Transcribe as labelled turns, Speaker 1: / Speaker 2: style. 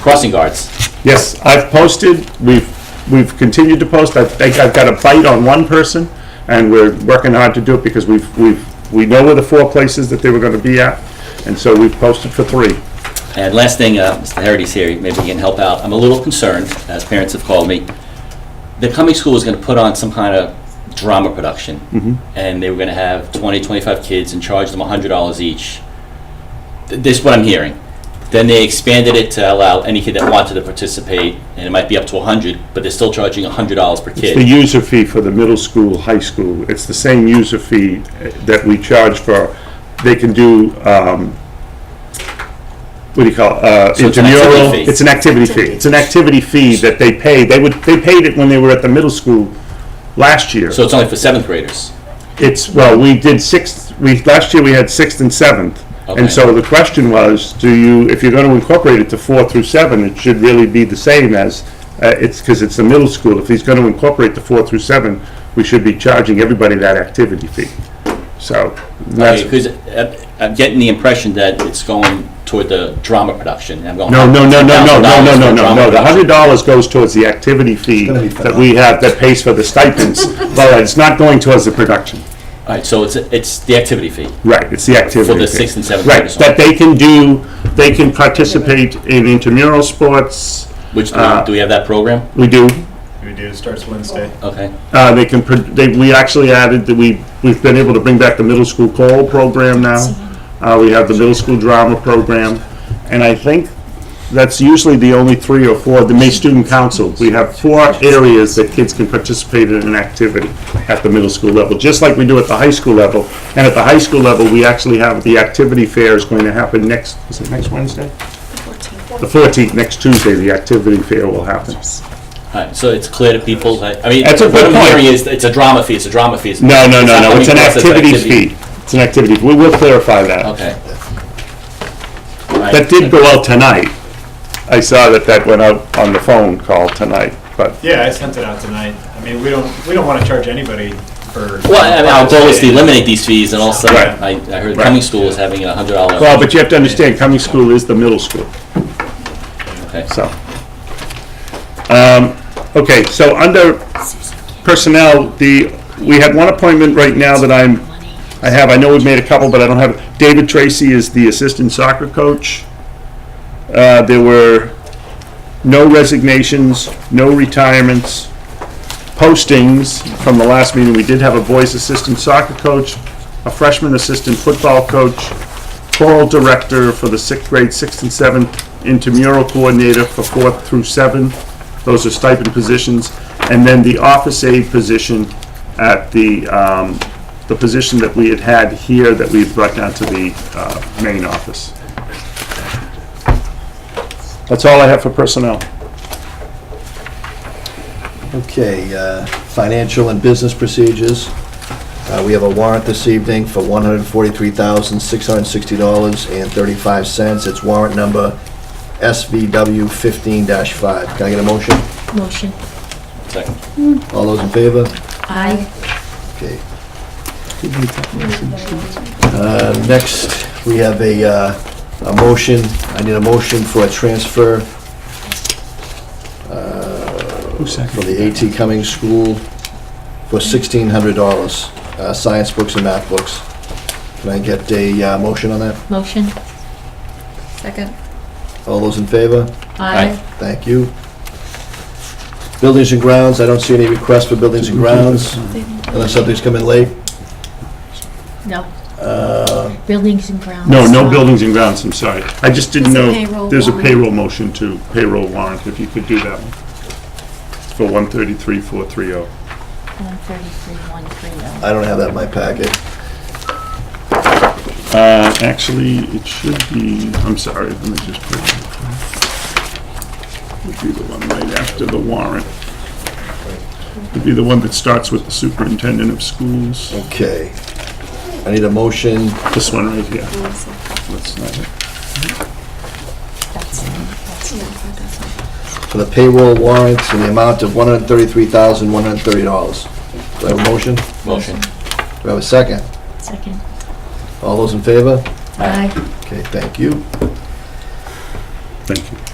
Speaker 1: crossing guards.
Speaker 2: Yes, I've posted, we've, we've continued to post, I think I've got a bite on one person, and we're working hard to do it because we've, we've, we know where the four places that they were gonna be at, and so we've posted for three.
Speaker 1: And last thing, uh, Mr. Harity's here, maybe he can help out. I'm a little concerned, as parents have called me. The coming school is going to put on some kind of drama production. And they were going to have 20, 25 kids and charge them $100 each. Th- This is what I'm hearing. Then they expanded it to allow any kid that wanted to participate, and it might be up to 100, but they're still charging $100 per
Speaker 2: The
Speaker 1: kid.
Speaker 2: user fee for the middle school, high school, it's the same user fee eh, that we charge for, they can do, um, what do you call, it, uh,
Speaker 1: it's an activity
Speaker 2: intramural?
Speaker 1: fee.
Speaker 2: It's an activity fee, it's an activity fee that they pay, they would, they paid it when they were at the middle school last year.
Speaker 1: So it's only for seventh graders.
Speaker 2: It's, well, we did sixth, we, last year we had sixth and seventh. And
Speaker 1: Okay.
Speaker 2: so the question was, do you, if you're gonna incorporate it to four through seven, it should really be the same as, uh, it's, cause it's the middle school. If he's gonna incorporate the four through seven, we should be charging everybody that activity fee. So, that's,
Speaker 1: Because I'm getting the impression that it's going toward the drama production. and I'm going,
Speaker 2: no, no, no, no, no, no,
Speaker 1: $100,000
Speaker 2: no, no,
Speaker 1: for
Speaker 2: no,
Speaker 1: drama
Speaker 2: no. The
Speaker 1: production.
Speaker 2: hundred dollars goes towards the activity fee
Speaker 3: gonna be
Speaker 2: that we have, that pays for the stipends. But it's not going towards the production.
Speaker 1: All right, so it's, it's the activity fee.
Speaker 2: Right, it's the activity.
Speaker 1: For the
Speaker 2: thing.
Speaker 1: sixth and seventh
Speaker 2: Right,
Speaker 1: graders.
Speaker 2: that they can do, they can participate in intramural sports,
Speaker 1: Which, do
Speaker 2: Uh,
Speaker 1: we- do we have that program?
Speaker 2: we do.
Speaker 3: We do, starts Wednesday.
Speaker 1: Okay.
Speaker 2: Uh, they can, pro- they, we actually added that we, we've been able to bring back the middle school choral program now. Uh, we have the middle school drama program, and I think that's usually the only three or four, the May Student Council. We have four areas that kids can participate in an activity at the middle school level, just like we do at the high school level. And at the high school level, we actually have, the activity fair is going to happen next, is it next Wednesday? The 14th, next Tuesday, the activity fair will happen.
Speaker 1: All right, so it's clear to people, that- I mean,
Speaker 2: That's a
Speaker 1: what
Speaker 2: good
Speaker 1: I'm hearing
Speaker 2: point.
Speaker 1: is, it's a drama fee, it's a drama fee. it's-
Speaker 2: No, no, no,
Speaker 1: not
Speaker 2: no,
Speaker 1: coming
Speaker 2: it's an
Speaker 1: across as
Speaker 2: activity fee. It's an activity, we will clarify that.
Speaker 1: Okay. All right.
Speaker 2: That did go out tonight. I saw that that went out on the phone call tonight, but
Speaker 3: Yeah, I sent it out tonight. I mean, we don't, we don't want to charge anybody for.
Speaker 1: Well, I mean, our goal is to eliminate these fees, and also,
Speaker 2: Right.
Speaker 1: I, I heard
Speaker 2: Right.
Speaker 1: Cumming School is having a hundred dollar,
Speaker 2: Well, but you have to understand, Cumming School is the middle school,
Speaker 1: okay.
Speaker 2: so. Um, Okay, so under personnel, the, we had one appointment right now that I'm, I have, I know we've made a couple, but I don't have, David Tracy is the assistant soccer coach. Uh, There were no resignations, no retirements, postings from the last meeting. We did have a boys assistant soccer coach, a freshman assistant football coach, choral director for the sixth grade, sixth and seventh, intramural coordinator for fourth through seven. Those are stipend positions. And then the office aide position at the, um, the position that we had had here that we've brought down to the, uh, main office. That's all I have for personnel.
Speaker 4: Okay, uh, financial and business procedures. Uh, We have a warrant this evening for $143,660.35. It's warrant number SVW 15-5. Can I get a motion?
Speaker 5: Motion.
Speaker 1: Second.
Speaker 4: All those in favor?
Speaker 5: Aye.
Speaker 4: Okay. Uh, Next, we have a uh, a motion, I need a motion for a transfer for the AT Cummings School for sixteen hundred dollars, uh, science books and math books. Can I get a, uh, motion on that?
Speaker 5: Motion. Second.
Speaker 4: All those in favor?
Speaker 5: Aye.
Speaker 4: Thank you. Buildings and grounds, I don't see any requests for buildings and grounds, unless something's come in late.
Speaker 5: No. Buildings and grounds.
Speaker 2: No, no buildings and grounds, I'm sorry. I just didn't
Speaker 6: There's a
Speaker 2: know,
Speaker 6: payroll
Speaker 2: there's a
Speaker 6: warrant.
Speaker 2: payroll motion to payroll warrant, if you could do that one. For 133,430.
Speaker 5: One thirty-three, one three oh.
Speaker 4: I don't have that in my packet.
Speaker 2: Uh, actually, it should be, I'm sorry, let me just put it. Would be the one right after the warrant. Would be the one that starts with the superintendent of schools.
Speaker 4: Okay. I need a motion,
Speaker 2: This one right here. That's not it.
Speaker 5: That's, that's
Speaker 4: for the payroll warrants in the amount of $133,130. Do I have a motion? Do
Speaker 1: Motion.
Speaker 4: I have a second?
Speaker 5: second.
Speaker 4: All those in favor?
Speaker 5: Aye.
Speaker 4: Okay, thank you.
Speaker 2: Thank you.